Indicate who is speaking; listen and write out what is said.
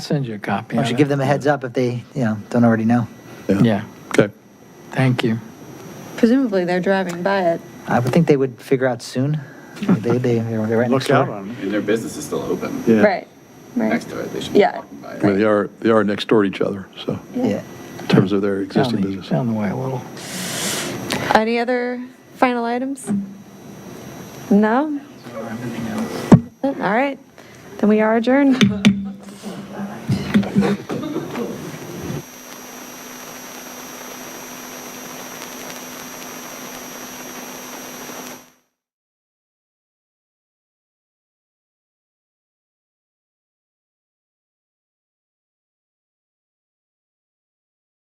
Speaker 1: Send you a copy.
Speaker 2: Why don't you give them a heads up if they, you know, don't already know?
Speaker 1: Yeah,
Speaker 3: Okay.
Speaker 1: thank you.
Speaker 4: Presumably, they're driving by it.
Speaker 2: I would think they would figure out soon. They, they, they're they're right next
Speaker 5: Look out
Speaker 2: door.
Speaker 5: on it.
Speaker 6: And their business is still open.
Speaker 5: Yeah.
Speaker 4: Right, right.
Speaker 6: Next to it, they should be
Speaker 4: Yeah.
Speaker 6: walking by.
Speaker 3: I mean, they are, they are next door to each other, so,
Speaker 2: Yeah.
Speaker 3: in terms of their
Speaker 1: Down
Speaker 3: existing
Speaker 1: the-
Speaker 3: business.
Speaker 1: Down the way a little.
Speaker 4: Any other final items? No? All right, then we are adjourned.